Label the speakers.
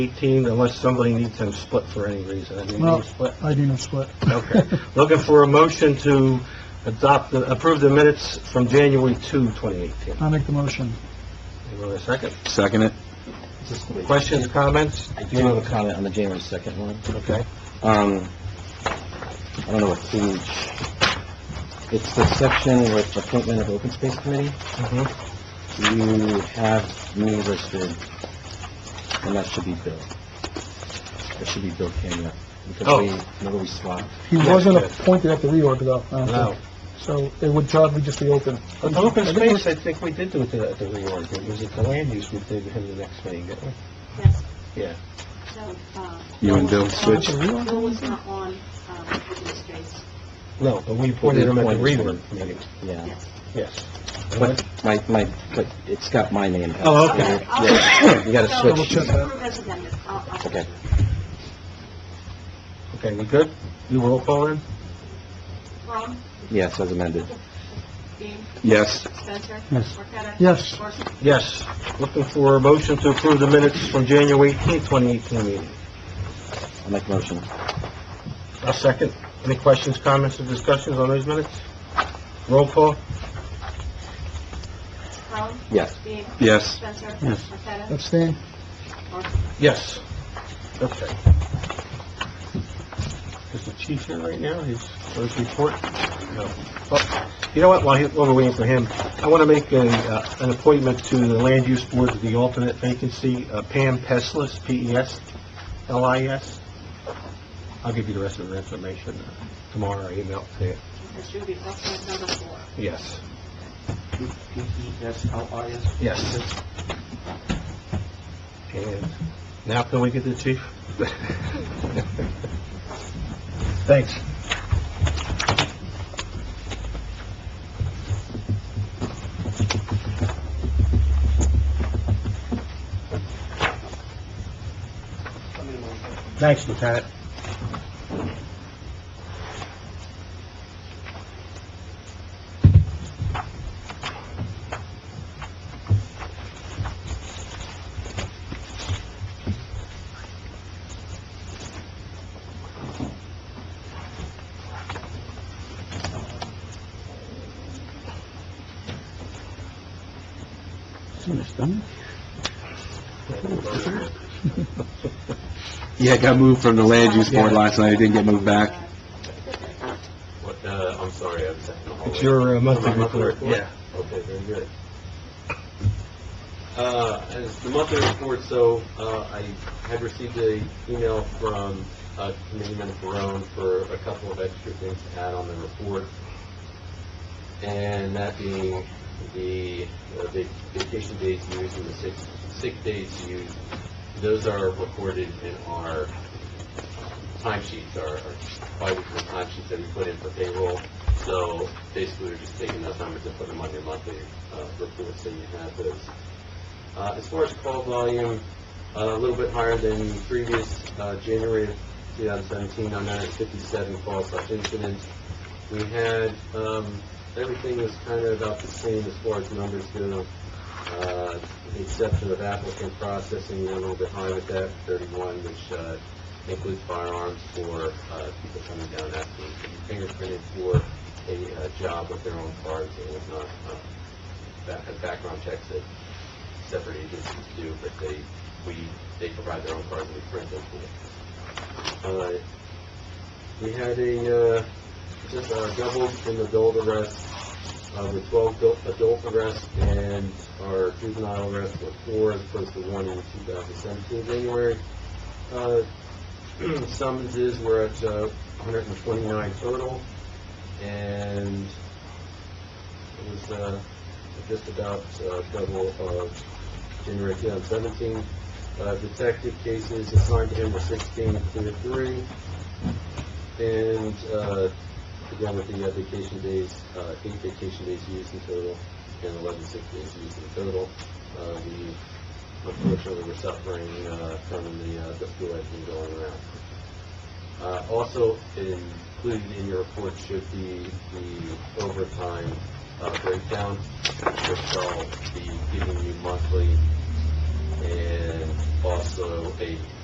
Speaker 1: 18, unless somebody needs them split for any reason. I mean, you
Speaker 2: Well-
Speaker 1: split.
Speaker 2: I do know split.
Speaker 1: Okay. Looking for a motion to adopt, the- approve the minutes from January 2, 2018.
Speaker 2: I'll make the motion.
Speaker 1: Anyone have a second?
Speaker 3: Second it.
Speaker 1: Questions, comments?
Speaker 4: I do have a comment on the January 2nd one.
Speaker 1: Okay.
Speaker 4: Um, I don't know what page, it's the section with appointment of open space committee.
Speaker 1: Mhm.
Speaker 4: You have me listed, and that should be Bill. That should be Bill Kenya, because
Speaker 1: Oh.
Speaker 4: we, remember we swapped?
Speaker 2: He
Speaker 1: Yes,
Speaker 2: wasn't
Speaker 1: yes.
Speaker 2: appointed at the reorg though. I don't
Speaker 1: No.
Speaker 2: think. So it would probably just be open.
Speaker 1: But Open space, I think we did do it at the reorg. It was at the land use we did him the next meeting, didn't we?
Speaker 5: Yes.
Speaker 1: Yeah.
Speaker 5: No, uh,
Speaker 3: You and Bill switch.
Speaker 5: Bill was not on, um, open space,
Speaker 1: No, but we appointed him at the
Speaker 4: Appointed
Speaker 1: reorg
Speaker 4: him.
Speaker 1: meeting.
Speaker 4: Yeah,
Speaker 5: yes.
Speaker 1: Yes.
Speaker 4: but my, my, but it's got my name.
Speaker 1: Oh, okay.
Speaker 5: Okay, I'll-
Speaker 4: Yeah, you gotta
Speaker 5: So,
Speaker 4: switch.
Speaker 5: just approve as amended. I'll- I'll-
Speaker 4: Okay.
Speaker 1: Okay, we good? You roll call in?
Speaker 5: Ron,
Speaker 4: Yes, as amended.
Speaker 5: Dean,
Speaker 3: Yes.
Speaker 5: Spencer.
Speaker 2: Yes.
Speaker 5: Marqueta.
Speaker 2: Yes.
Speaker 5: Morrison.
Speaker 1: Yes. Looking for a motion to approve the minutes from January 18, 2018 meeting.
Speaker 4: I'll make a motion.
Speaker 1: A second. Any questions, comments, or discussions on those minutes? Roll call?
Speaker 5: Ron,
Speaker 4: Yes.
Speaker 5: Dean,
Speaker 3: Yes.
Speaker 5: Spencer.
Speaker 2: Yes.
Speaker 5: Marqueta.
Speaker 2: Abstain?
Speaker 5: Morrison.
Speaker 1: Yes. Okay. Is the chief here right now? He's, for his report? No. Well, You know what, while he- while we're waiting for him, I want to make a, uh, an appointment to the Land Use Board, to the alternate vacancy, uh, Pam Peslis, E P-E-S-L-I-S. I'll give you the rest of the information uh, tomorrow, email to you.
Speaker 5: This should be alternate number four.
Speaker 1: Yes,
Speaker 4: Yes.
Speaker 1: yes. And now can we get the chief? Thanks. Thanks, Lieutenant.
Speaker 3: Yeah, it got moved from the land use board last night. It didn't get moved back.
Speaker 6: What, uh, I'm sorry, I was in the hallway.
Speaker 1: It's your uh, monthly
Speaker 6: My monthly
Speaker 1: report.
Speaker 6: report? Okay, very good. Uh, as the monthly report, so, uh, I had received a email from, uh, Committeeman Barone for a couple of extra things to add on the report. And that being the uh, vac- vacation days used and the sick, sick days used, those are recorded in our timesheets, our, our bi-weekly timesheets that we put in for payroll. So basically, we're just taking those numbers and putting them on your monthly uh, report, so you have those. Uh, As far as call volume, uh, a little bit higher than previous uh, January of 2017, 957 calls slash incidents. We had, um, everything was kind of about the same as far as numbers go, uh, with the exception of applicant processing, we're a little bit high with that, 31, which uh, includes firearms for uh, people coming down asking to be fingerprinted for a uh, job with their own cards and whatnot. Uh, That has background checks that separate agencies do, but they, we, they provide their own cards and we print them for them. Uh, We had a, uh, just uh, doubled in adult arrests, uh, with 12 adult- adult arrests and our juvenile arrests were four as opposed to one in 2017 January. Uh, Summonses were at uh, 129 total, and it was uh, just about uh, double of January 2017. Uh, Detective cases assigned to him were 16, clear three, and uh, again with the uh, vacation days, uh, eight vacation days used in total, and 11 sick days used in total. Uh, We unfortunately we're suffering uh, from the, uh, the flu that's been going around. Uh, Also included in your report should be the overtime uh, breakdown, which I'll be giving you monthly, and also a